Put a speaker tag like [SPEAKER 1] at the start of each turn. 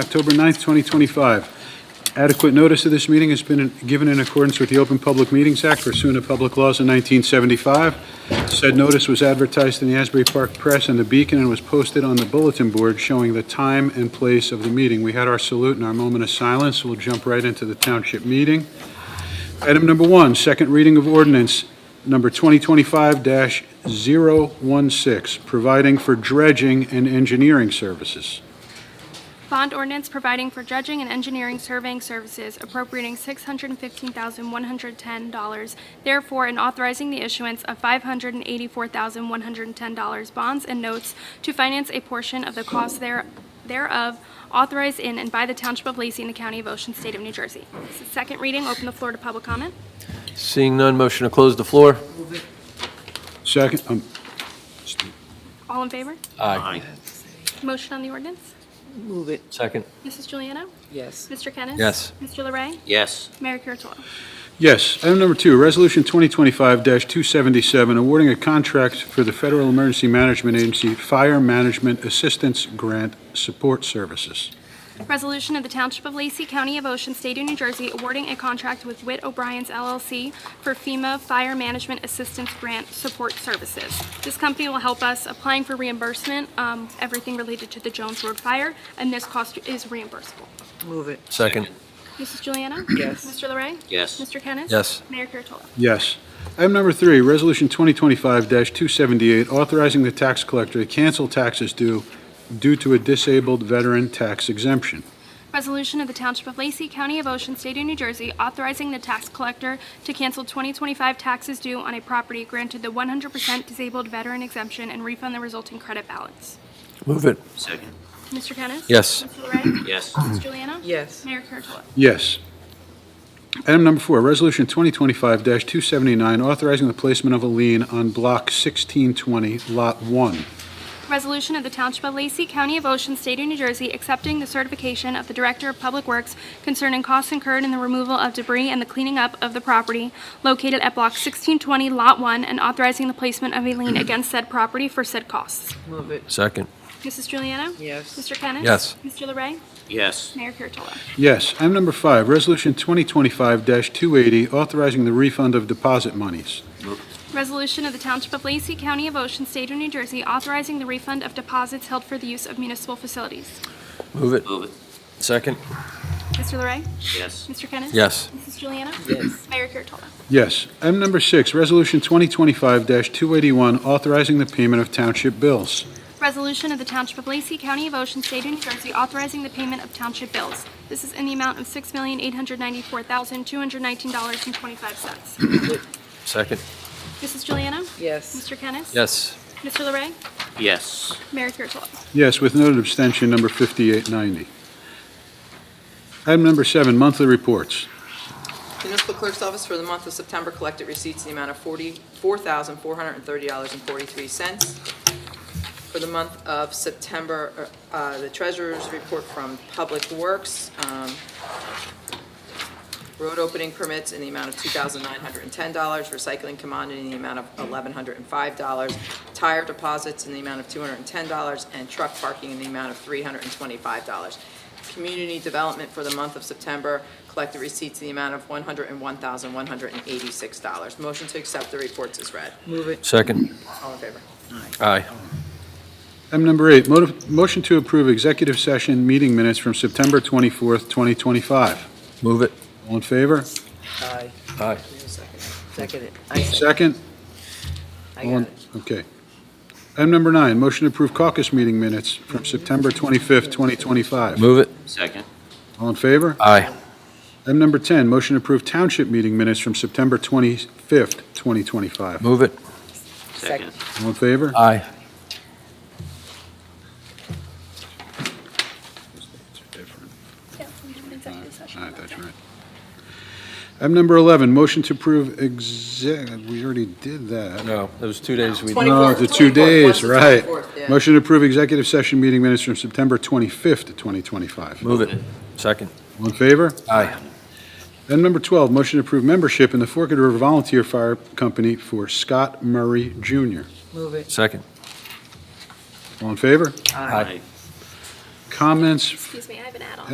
[SPEAKER 1] October 9th, 2025. Adequate notice of this meeting has been given in accordance with the Open Public Meetings Act pursuant to public laws in 1975. Said notice was advertised in the Asbury Park Press and the Beacon and was posted on the bulletin board showing the time and place of the meeting. We had our salute and our moment of silence. We'll jump right into the township meeting. Item number one, second reading of ordinance number 2025-016, providing for dredging and engineering services.
[SPEAKER 2] Bond ordinance providing for dredging and engineering surveying services appropriating $615,110, therefore, and authorizing the issuance of $584,110 bonds and notes to finance a portion of the cost there- thereof authorized in and by the Township of Lacey in the County of Ocean, State of New Jersey. This is Second reading, open the floor to public comment.
[SPEAKER 3] Seeing none, motion to close the floor?
[SPEAKER 1] Second, um,
[SPEAKER 2] All in favor?
[SPEAKER 3] Aye.
[SPEAKER 2] Motion on the ordinance?
[SPEAKER 4] Move it,
[SPEAKER 3] Second?
[SPEAKER 2] Mrs. Juliana?
[SPEAKER 4] yes.
[SPEAKER 2] Mr. Kennis?
[SPEAKER 3] Yes.
[SPEAKER 2] Mr. Larray?
[SPEAKER 5] yes,
[SPEAKER 2] Mayor Kurtolo?
[SPEAKER 1] yes. Item number two, Resolution 2025-277, awarding a contract for the Federal Emergency Management Agency Fire Management Assistance Grant Support Services.
[SPEAKER 2] Resolution of the Township of Lacey, County of Ocean, State of New Jersey, awarding a contract with Witt O'Brien's LLC for FEMA Fire Management Assistance Grant Support Services. This company will help us applying for reimbursement, um, everything related to the Jones Road fire, and this cost is reimbursable.
[SPEAKER 4] Move it,
[SPEAKER 3] Second?
[SPEAKER 2] Mrs. Juliana?
[SPEAKER 4] Yes.
[SPEAKER 2] Mr. Larray?
[SPEAKER 5] yes,
[SPEAKER 2] Mr. Kennis?
[SPEAKER 3] Yes.
[SPEAKER 2] Mayor Kurtolo?
[SPEAKER 1] Yes. Item number three, Resolution 2025-278, authorizing the tax collector to cancel taxes due due to a disabled veteran tax exemption.
[SPEAKER 2] Resolution of the Township of Lacey, County of Ocean, State of New Jersey, authorizing the tax collector to cancel 2025 taxes due on a property granted the 100% disabled veteran exemption and refund the resulting credit balance.
[SPEAKER 3] Move it.
[SPEAKER 5] second,
[SPEAKER 2] Mr. Kennis?
[SPEAKER 3] Yes.
[SPEAKER 2] Mr. Larray?
[SPEAKER 5] yes,
[SPEAKER 2] Ms. Juliana?
[SPEAKER 4] yes.
[SPEAKER 2] Mayor Kurtolo?
[SPEAKER 1] Yes. Item number four, Resolution 2025-279, authorizing the placement of a lien on Block 1620, Lot 1.
[SPEAKER 2] Resolution of the Township of Lacey, County of Ocean, State of New Jersey, accepting the certification of the Director of Public Works concerning costs incurred in the removal of debris and the cleaning up of the property located at Block 1620, Lot 1, and authorizing the placement of a lien against said property for said costs.
[SPEAKER 4] Move it,
[SPEAKER 3] Second?
[SPEAKER 2] Mrs. Juliana?
[SPEAKER 4] Yes.
[SPEAKER 2] Mr. Kennis?
[SPEAKER 3] Yes.
[SPEAKER 2] Mr. Larray?
[SPEAKER 5] yes,
[SPEAKER 2] Mayor Kurtolo?
[SPEAKER 1] Yes. Item number five, Resolution 2025-280, authorizing the refund of deposit monies.
[SPEAKER 2] Resolution of the Township of Lacey, County of Ocean, State of New Jersey, authorizing the refund of deposits held for the use of municipal facilities.
[SPEAKER 3] Move it.
[SPEAKER 5] move it,
[SPEAKER 3] Second?
[SPEAKER 2] Mr. Larray?
[SPEAKER 5] yes,
[SPEAKER 2] Mr. Kennis?
[SPEAKER 3] Yes.
[SPEAKER 2] Mrs. Juliana?
[SPEAKER 4] yes.
[SPEAKER 2] Mayor Kurtolo?
[SPEAKER 1] Yes. Item number six, Resolution 2025-281, authorizing the payment of township bills.
[SPEAKER 2] Resolution of the Township of Lacey, County of Ocean, State of New Jersey, authorizing the payment of township bills. This is in the amount of $6,894,219.25.
[SPEAKER 3] Second?
[SPEAKER 2] Mrs. Juliana?
[SPEAKER 4] Yes,
[SPEAKER 2] Mr. Kennis?
[SPEAKER 3] Yes.
[SPEAKER 2] Mr. Larray?
[SPEAKER 5] yes,
[SPEAKER 2] Mayor Kurtolo?
[SPEAKER 1] Yes, with noted abstention, number 5890. Item number seven, monthly reports.
[SPEAKER 6] The Municipal Clerk's Office for the month of September collected receipts in the amount of $44,430.43. For the month of September, uh, uh, the Treasurer's Report from Public Works, um, road opening permits in the amount of $2,910, recycling commodity in the amount of $1,105, tire deposits in the amount of $210, and truck parking in the amount of $325. Community development for the month of September collected receipts in the amount of $101,186. Motion to accept the reports is read.
[SPEAKER 4] move it,
[SPEAKER 3] Second?
[SPEAKER 6] All in favor?
[SPEAKER 3] Aye.
[SPEAKER 1] Item number eight, mo- motion to approve executive session meeting minutes from September 24th, 2025.
[SPEAKER 3] Move it.
[SPEAKER 1] All in favor?
[SPEAKER 4] aye.
[SPEAKER 3] Aye.
[SPEAKER 4] Second it, I second,
[SPEAKER 1] Second?
[SPEAKER 4] I
[SPEAKER 1] All
[SPEAKER 4] got
[SPEAKER 1] in-
[SPEAKER 4] it.
[SPEAKER 1] Okay. Item number nine, motion to approve caucus meeting minutes from September 25th, 2025.
[SPEAKER 3] Move it.
[SPEAKER 5] second,
[SPEAKER 1] All in favor?
[SPEAKER 3] Aye.
[SPEAKER 1] Item number 10, motion to approve township meeting minutes from September 25th, 2025.
[SPEAKER 3] Move it.
[SPEAKER 5] second,
[SPEAKER 1] All in favor?
[SPEAKER 3] Aye.
[SPEAKER 2] Yeah, we have an executive session.
[SPEAKER 1] All right, that's right. Item number 11, motion to approve exec, we already did that.
[SPEAKER 3] No, those two days we,
[SPEAKER 1] No,
[SPEAKER 6] 24th,
[SPEAKER 1] the two
[SPEAKER 6] 24th,
[SPEAKER 1] days,
[SPEAKER 6] one's the
[SPEAKER 1] right.
[SPEAKER 6] 24th, yeah.
[SPEAKER 1] Motion to approve executive session meeting minutes from September 25th, 2025.
[SPEAKER 3] move it. Second?
[SPEAKER 1] All in favor?
[SPEAKER 3] Aye.
[SPEAKER 1] Item number 12, motion to approve membership in the Forked River Volunteer Fire Company for Scott Murray Jr.
[SPEAKER 4] Move it,
[SPEAKER 3] Second?
[SPEAKER 1] All in favor?
[SPEAKER 4] aye.
[SPEAKER 3] Aye.
[SPEAKER 5] aye,
[SPEAKER 1] comments
[SPEAKER 2] Excuse me, I have an add-on.